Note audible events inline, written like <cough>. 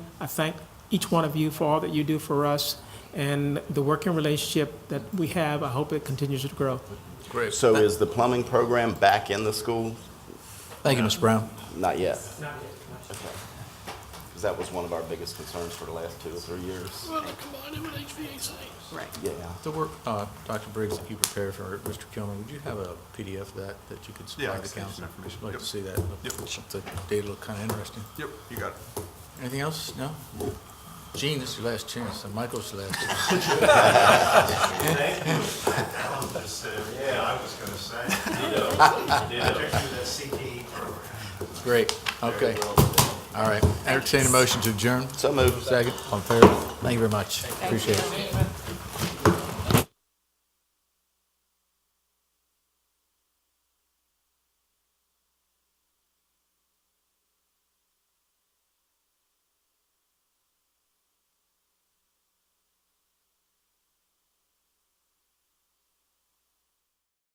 I thank each one of you for all that you do for us and the working relationship that we have. I hope it continues to grow. Great. So is the plumbing program back in the school? Thank you, Ms. Brown. Not yet. Because that was one of our biggest concerns for the last two or three years. Well, they're combining with HVAC. Right. Yeah. The work, uh, Dr. Briggs, that you prepared for Mr. Kilmer, would you have a PDF of that that you could Yeah, I supply can the send you some council? information. I'd like Yep. to see that. Yep. The data look kind of interesting. Yep, you got it. Anything else? No? Gene, this is your last chance, and Michael's your last chance. <laughs> Thank you. Alan just said, Yeah, I was gonna say. Particularly the CTE program. Great, okay. All right, entertain a motion to adjourn. So moved. Second, on favor. Thank you very much. Appreciate it.